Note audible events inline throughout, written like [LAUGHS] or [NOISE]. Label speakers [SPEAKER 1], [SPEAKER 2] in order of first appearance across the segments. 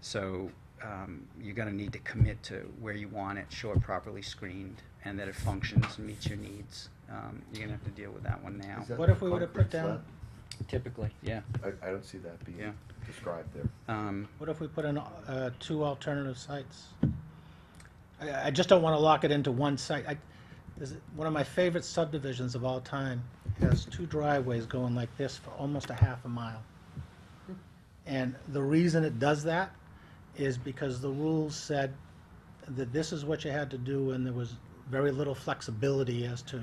[SPEAKER 1] So um, you're going to need to commit to where you want it, show it properly screened, and that it functions and meets your needs. Um, You're going to have to deal with that one now.
[SPEAKER 2] Is that
[SPEAKER 3] What if we
[SPEAKER 2] the
[SPEAKER 3] would've
[SPEAKER 2] concrete
[SPEAKER 3] put down-
[SPEAKER 1] Typically, yeah.
[SPEAKER 2] slab? I, I don't see that being
[SPEAKER 1] Yeah.
[SPEAKER 2] described there.
[SPEAKER 1] Um,
[SPEAKER 3] What if we put in uh, two alternative sites? I, I just don't want to lock it into one site. I, this is one of my favorite subdivisions of all time has two driveways going like this for almost a half a mile. And the reason it does that is because the rules said that this is what you had to do, and there was very little flexibility as to,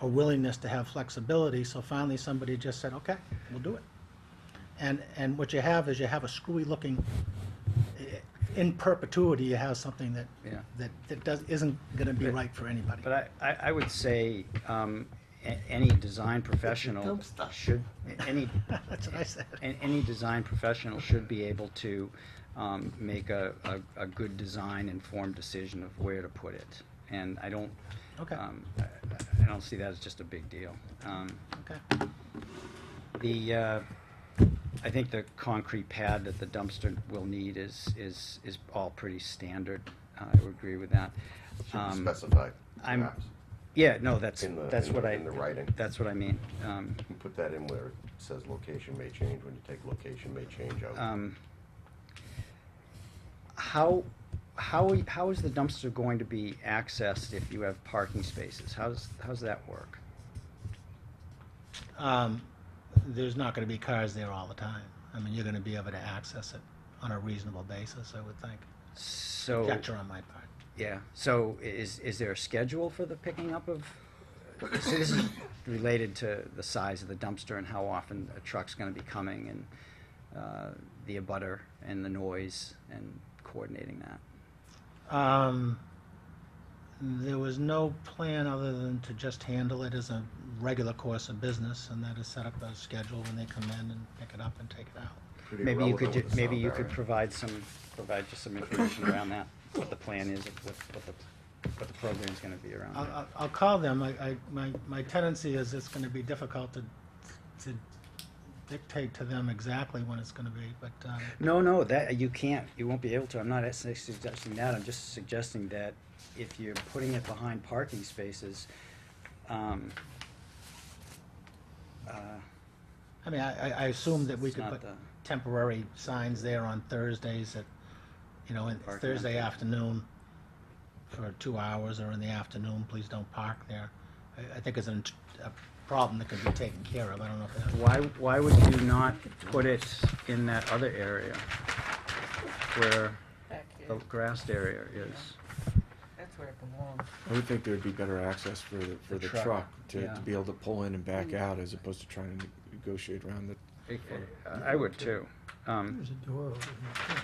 [SPEAKER 3] or willingness to have flexibility. So finally, somebody just said, "Okay, we'll do it." And, and what you have is you have a screwy looking, eh, in perpetuity, you have something that,
[SPEAKER 1] Yeah.
[SPEAKER 3] that, that does, isn't gonna be right for anybody.
[SPEAKER 1] But I, I, I would say um, a- any design professional
[SPEAKER 2] Dumb stuff.
[SPEAKER 1] should, any,
[SPEAKER 3] [LAUGHS] That's what I said.
[SPEAKER 1] an- any design professional should be able to um, make a, a, a good design informed decision of where to put it. And I don't,
[SPEAKER 3] Okay.
[SPEAKER 1] um, I, I don't see that as just a big deal. Um,
[SPEAKER 3] Okay,
[SPEAKER 1] the, uh, I think the concrete pad that the dumpster will need is, is, is all pretty standard. Uh, I would agree with that.
[SPEAKER 2] Should be
[SPEAKER 1] Um,
[SPEAKER 2] specified,
[SPEAKER 1] I'm-
[SPEAKER 2] perhaps.
[SPEAKER 1] Yeah, no, that's,
[SPEAKER 2] In the-
[SPEAKER 1] that's
[SPEAKER 2] in
[SPEAKER 1] what
[SPEAKER 2] the-
[SPEAKER 1] I.
[SPEAKER 2] in the writing.
[SPEAKER 1] That's what I mean. Um,
[SPEAKER 2] You put that in where it says location may change, when you take location may change out.
[SPEAKER 1] um, How, how, how is the dumpster going to be accessed if you have parking spaces? How's, how's that work?
[SPEAKER 3] um, there's not gonna be cars there all the time. I mean, you're gonna be able to access it on a reasonable basis, I would think.
[SPEAKER 1] So,
[SPEAKER 3] Conjecture on my part.
[SPEAKER 1] yeah, so is, is there a schedule for the picking up of? So this is related to the size of the dumpster and how often a truck's gonna be coming and, uh, the abutter and the noise and coordinating that.
[SPEAKER 3] Um, there was no plan other than to just handle it as a regular course of business, and that is set up a schedule when they come in and pick it up and take it out.
[SPEAKER 2] Pretty
[SPEAKER 1] Maybe you
[SPEAKER 2] irrelevant
[SPEAKER 1] could,
[SPEAKER 2] with
[SPEAKER 1] ju-
[SPEAKER 2] the
[SPEAKER 1] maybe
[SPEAKER 2] sound
[SPEAKER 1] you could
[SPEAKER 2] barrier.
[SPEAKER 1] provide some, provide just some information around that, what the plan is, what, what the, what the program's gonna be around
[SPEAKER 3] I'll,
[SPEAKER 1] that.
[SPEAKER 3] I'll- I'll call them. I, I, my, my tendency is it's gonna be difficult to, to dictate to them exactly when it's gonna be, but, um,
[SPEAKER 1] No, no, that, you can't, you won't be able to, I'm not s- suggesting that, I'm just suggesting that if you're putting it behind parking spaces, um, uh,
[SPEAKER 3] I mean, I, I- I assume that we
[SPEAKER 1] It's
[SPEAKER 3] could
[SPEAKER 1] not
[SPEAKER 3] put
[SPEAKER 1] the-
[SPEAKER 3] temporary signs there on Thursdays at, you know, in-
[SPEAKER 1] Parking on
[SPEAKER 3] Thursday
[SPEAKER 1] Thursday.
[SPEAKER 3] afternoon for two hours or in the afternoon, please don't park there. I, I think it's an, int- a problem that could be taken care of. I don't know if that,
[SPEAKER 1] why, why would you not put it in that other area where
[SPEAKER 4] Back
[SPEAKER 1] the
[SPEAKER 4] here,
[SPEAKER 1] grassed area is?
[SPEAKER 4] that's where it belongs.
[SPEAKER 5] I would think there'd be better access for the, for
[SPEAKER 1] The
[SPEAKER 5] the
[SPEAKER 1] truck,
[SPEAKER 5] truck, to,
[SPEAKER 1] yeah.
[SPEAKER 5] to be able to pull in and back out as opposed to trying to negotiate around the.
[SPEAKER 1] I- I I would too. Um,
[SPEAKER 6] There's a door over here.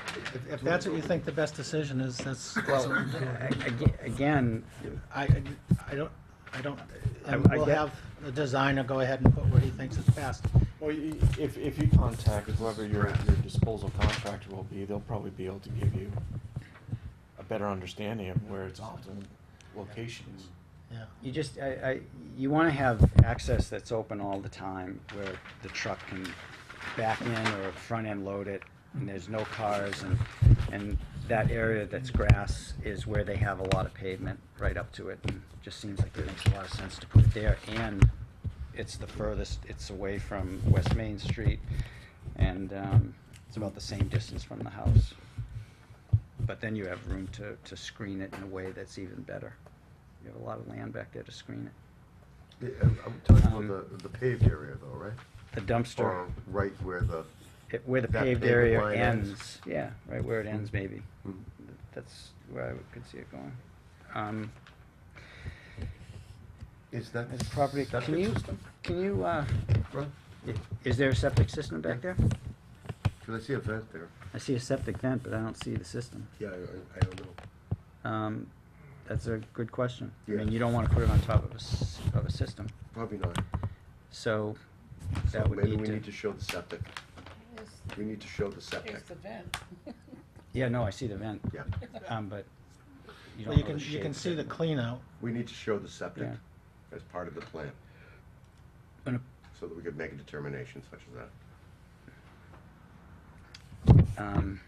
[SPEAKER 3] if, if that's what you think the best decision is, that's, that's
[SPEAKER 1] Well,
[SPEAKER 3] what we do.
[SPEAKER 1] a- aga- again,
[SPEAKER 3] I, I don't, I don't,
[SPEAKER 1] I-
[SPEAKER 3] and
[SPEAKER 1] I
[SPEAKER 3] we'll
[SPEAKER 1] get-
[SPEAKER 3] have the designer go ahead and put what he thinks is best.
[SPEAKER 5] Well, y- y- if, if you contact whoever your, your disposal contractor will be, they'll probably be able to give you a better understanding of where its optimal location is.
[SPEAKER 3] Yeah.
[SPEAKER 1] you just, I, I, you wanna have access that's open all the time where the truck can back in or front end load it and there's no cars and, and that area that's grass is where they have a lot of pavement right up to it. and Just seems like it makes a lot of sense to put it there and it's the furthest, it's away from West Main Street and, um, it's about the same distance from the house. But then you have room to, to screen it in a way that's even better. You have a lot of land back there to screen it.
[SPEAKER 2] Yeah, I'm I'm talking
[SPEAKER 1] Um,
[SPEAKER 2] about the, the paved area though, right?
[SPEAKER 1] The dumpster,
[SPEAKER 2] Or right where the,
[SPEAKER 1] it- where the
[SPEAKER 2] that
[SPEAKER 1] paved
[SPEAKER 2] paved
[SPEAKER 1] area
[SPEAKER 2] line ends.
[SPEAKER 1] ends, yeah, right where it ends maybe.
[SPEAKER 2] Hmm.
[SPEAKER 1] That's where I would- could see it going. Um,
[SPEAKER 2] is that?
[SPEAKER 1] It's property,
[SPEAKER 2] septic
[SPEAKER 1] can you,
[SPEAKER 2] system?
[SPEAKER 1] can you, uh,
[SPEAKER 2] Ron,
[SPEAKER 1] i- is there a septic system back there?
[SPEAKER 2] Can I see a vent there?
[SPEAKER 1] I see a septic vent, but I don't see the system.
[SPEAKER 2] Yeah, I, I- I don't know.
[SPEAKER 1] Um, that's a good question. I mean,
[SPEAKER 2] Yeah.
[SPEAKER 1] you don't wanna put it on top of a, s- of a system,
[SPEAKER 2] Probably not.
[SPEAKER 1] so
[SPEAKER 2] So
[SPEAKER 1] that would
[SPEAKER 2] maybe
[SPEAKER 1] need
[SPEAKER 2] we need to
[SPEAKER 1] to.
[SPEAKER 2] show the septic.
[SPEAKER 4] Here's,
[SPEAKER 2] We need to show the septic.
[SPEAKER 4] here's the vent.
[SPEAKER 1] Yeah, no, I see the vent,
[SPEAKER 2] Yeah,
[SPEAKER 1] um, but you
[SPEAKER 3] Well,
[SPEAKER 1] don't
[SPEAKER 3] you
[SPEAKER 1] know
[SPEAKER 3] can,
[SPEAKER 1] the
[SPEAKER 3] you can
[SPEAKER 1] shape
[SPEAKER 3] see
[SPEAKER 1] of
[SPEAKER 3] the
[SPEAKER 1] it.
[SPEAKER 3] clean out.
[SPEAKER 2] we need to show the septic
[SPEAKER 1] Yeah.
[SPEAKER 2] as part of the plan,
[SPEAKER 1] And a
[SPEAKER 2] so that we could make a determination such as that.
[SPEAKER 1] Um,